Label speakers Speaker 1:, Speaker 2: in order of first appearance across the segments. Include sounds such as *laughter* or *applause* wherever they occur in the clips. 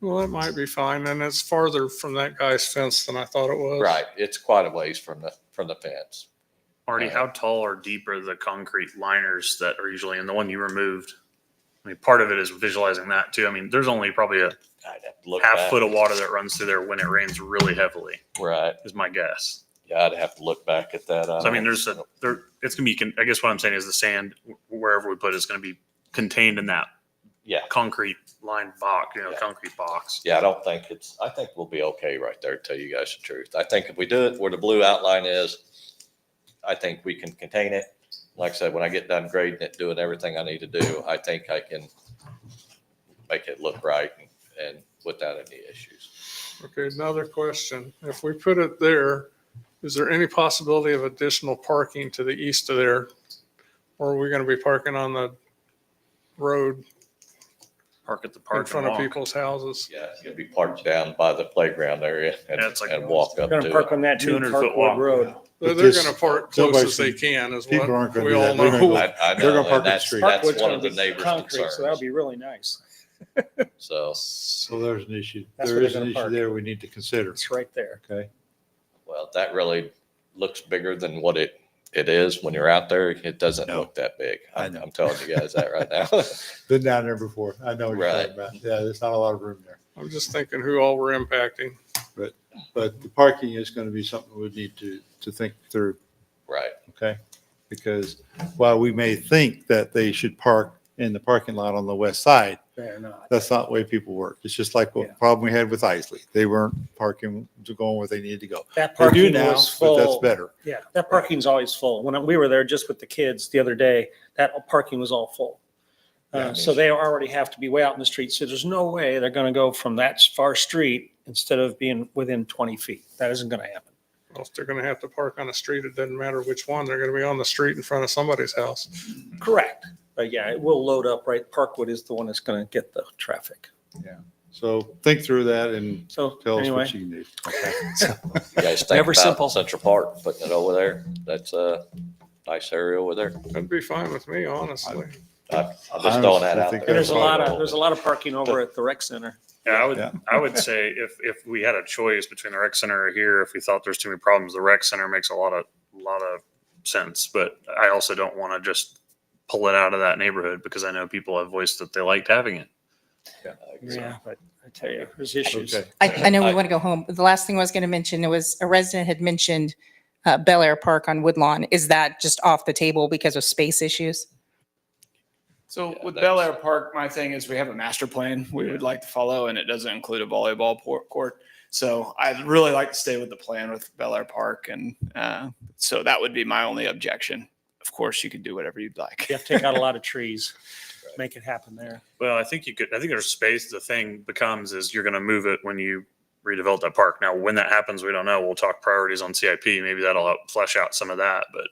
Speaker 1: Well, it might be fine, and it's farther from that guy's fence than I thought it was.
Speaker 2: Right, it's quite a ways from the, from the fence.
Speaker 3: Marty,
Speaker 2: Uh,
Speaker 3: how tall or deep are the concrete liners that are usually in the one you removed? I mean, part of it is visualizing that too. I mean, there's only probably a
Speaker 2: I'd have to look
Speaker 3: half
Speaker 2: back.
Speaker 3: foot of water that runs through there when it rains really heavily,
Speaker 2: Right,
Speaker 3: is my guess.
Speaker 2: yeah, I'd have to look back at that.
Speaker 3: So I mean,
Speaker 2: don't-
Speaker 3: there's a there. It's gonna be. con- I guess what I'm saying is the sand wh- wherever we put it is gonna be contained in that
Speaker 2: Yeah,
Speaker 3: concrete line box. You know,
Speaker 2: Yeah.
Speaker 3: concrete box.
Speaker 2: yeah, I don't think it's, I think we'll be okay right there, to tell you guys the truth. I think if we do it where the blue outline is, I think we can contain it. Like I said, when I get done grading it, doing everything I need to do, I think I can make it look right and- and without any issues.
Speaker 1: Okay, another question. If we put it there, is there any possibility of additional parking to the east of there? Or are we gonna be parking on the road
Speaker 3: Park at the
Speaker 1: in
Speaker 3: park
Speaker 1: front
Speaker 3: and
Speaker 1: of
Speaker 3: walk.
Speaker 1: people's houses?
Speaker 2: Yeah, it's gonna be parked down by the playground area and,
Speaker 3: Yeah, it's like-
Speaker 2: and walk up
Speaker 4: We're
Speaker 2: to
Speaker 4: Gonna
Speaker 2: it.
Speaker 4: park on that two
Speaker 3: 200
Speaker 4: hundred
Speaker 3: foot
Speaker 4: foot
Speaker 3: walk.
Speaker 4: road.
Speaker 1: They're,
Speaker 5: But
Speaker 1: they're
Speaker 5: this-
Speaker 1: gonna park close
Speaker 5: nobody
Speaker 1: as they
Speaker 5: should-
Speaker 1: can is
Speaker 5: people aren't
Speaker 1: what
Speaker 5: gonna
Speaker 1: we
Speaker 5: do
Speaker 1: all
Speaker 5: that. They're gonna
Speaker 1: know.
Speaker 5: go-
Speaker 2: I, I
Speaker 5: They're
Speaker 2: know,
Speaker 5: gonna park
Speaker 2: and
Speaker 5: the
Speaker 2: that's,
Speaker 5: street.
Speaker 2: that's
Speaker 4: Parkwood's
Speaker 2: one
Speaker 4: gonna
Speaker 2: of the
Speaker 4: be
Speaker 2: neighbors'
Speaker 4: concrete, So that'll
Speaker 2: concerns.
Speaker 4: be really nice.
Speaker 2: So,
Speaker 5: So there's an issue,
Speaker 4: That's
Speaker 5: there
Speaker 4: where
Speaker 5: is
Speaker 4: they're
Speaker 5: an
Speaker 4: gonna
Speaker 5: issue
Speaker 4: park.
Speaker 5: there we need to consider,
Speaker 4: It's right there.
Speaker 5: okay?
Speaker 2: well, that really looks bigger than what it, it is when you're out there. It doesn't
Speaker 5: No.
Speaker 2: look that big.
Speaker 5: I
Speaker 2: I'm,
Speaker 5: know.
Speaker 2: I'm telling you guys that right
Speaker 5: *laughs*
Speaker 2: now. *laughs*
Speaker 5: Been down there before, I know what you're
Speaker 2: Right.
Speaker 5: talking about, yeah, there's not a lot of room there.
Speaker 1: I'm just thinking who all we're impacting.
Speaker 5: But the parking is gonna be something we need to, to think through,
Speaker 2: Right,
Speaker 5: okay? Because while we may think that they should park in the parking lot on the west side,
Speaker 4: They're not.
Speaker 5: that's not the way people work. It's just like
Speaker 4: Yeah.
Speaker 5: what problem we had with Isley, they weren't parking, to going where they needed to go.
Speaker 4: That
Speaker 5: They do
Speaker 4: parking
Speaker 5: now,
Speaker 4: was
Speaker 5: but that's
Speaker 4: full.
Speaker 5: better.
Speaker 4: Yeah, that parking's always full. When we were there just with the kids the other day, that parking was all full.
Speaker 5: Yeah, I
Speaker 4: Uh, so they already have to be way out in the street. So there's no way they're gonna go from that far street instead of being within twenty feet. That isn't gonna happen.
Speaker 1: Well, If they're gonna have to park on a street, it doesn't matter which one, they're gonna be on the street in front of somebody's house.
Speaker 2: Mm-hmm.
Speaker 4: Correct. But yeah, it will load up, right? Parkwood is the one that's gonna get the traffic.
Speaker 5: So think through that and
Speaker 4: So
Speaker 5: tell us
Speaker 4: anyway,
Speaker 5: what you need, okay?
Speaker 2: you guys think
Speaker 4: Never simple.
Speaker 2: about Central Park, putting it over there. That's a nice area over there.
Speaker 1: That'd be fine with me, honestly.
Speaker 2: I- I'm just throwing that
Speaker 5: Honestly, I
Speaker 2: out
Speaker 5: think
Speaker 2: there.
Speaker 4: and there's a
Speaker 5: Yeah.
Speaker 4: lot of, there's a lot of parking over at the rec center.
Speaker 3: Yeah, I would.
Speaker 5: Yeah.
Speaker 3: I would say if if we had a choice between the rec center or here, if we thought there's too many problems, the rec center makes a lot of lot of sense. But I also don't want to just pull it out of that neighborhood because I know people have voiced that they liked having it.
Speaker 4: Yeah, but I tell you, there's issues.
Speaker 5: Okay.
Speaker 6: I, I know
Speaker 2: I-
Speaker 6: we want to go home. The last thing I was going to mention, it was a resident had mentioned uh, Bel Air Park on Woodlawn. Is that just off the table because of space issues?
Speaker 7: So
Speaker 2: Yeah,
Speaker 7: with
Speaker 2: that's-
Speaker 7: Bel Air Park, my thing is we have a master plan we would like to follow and it doesn't include a volleyball por- court. So I'd really like to stay with the plan with Bel Air Park. And uh, so that would be my only objection. Of course, you can do whatever you'd like.
Speaker 4: You have to take out a lot of trees, make it happen there.
Speaker 3: Well, I think you could. I think there's space. The thing becomes is you're going to move it when you redevelop that park. Now, when that happens, we don't know. We'll talk priorities on CIP. Maybe that'll help flesh out some of that. But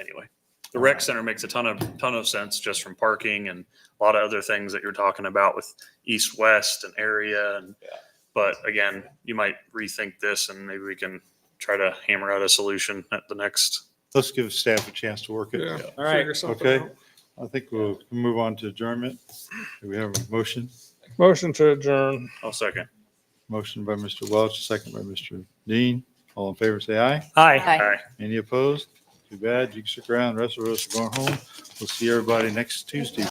Speaker 3: anyway, the rec center makes a ton of ton of sense just from parking and a lot of other things that you're talking about with east west and area. And
Speaker 2: Yeah.
Speaker 3: but again, you might rethink this and maybe we can try to hammer out a solution at the next.
Speaker 5: Let's give staff a chance to work it.
Speaker 1: Yeah.
Speaker 4: All right.
Speaker 1: figure something
Speaker 5: Okay.
Speaker 1: out.
Speaker 5: I think we'll move on to adjournment. Do we have a motion?
Speaker 1: Motion to adjourn.
Speaker 3: I'll oh, second.
Speaker 5: Motion by Mr. Welch, second by Mr. Dean. All in favor, say aye.
Speaker 4: Hi.
Speaker 3: All right.
Speaker 5: Any opposed? Too bad. You can stick around. The rest of us are going home. We'll see everybody next Tuesday.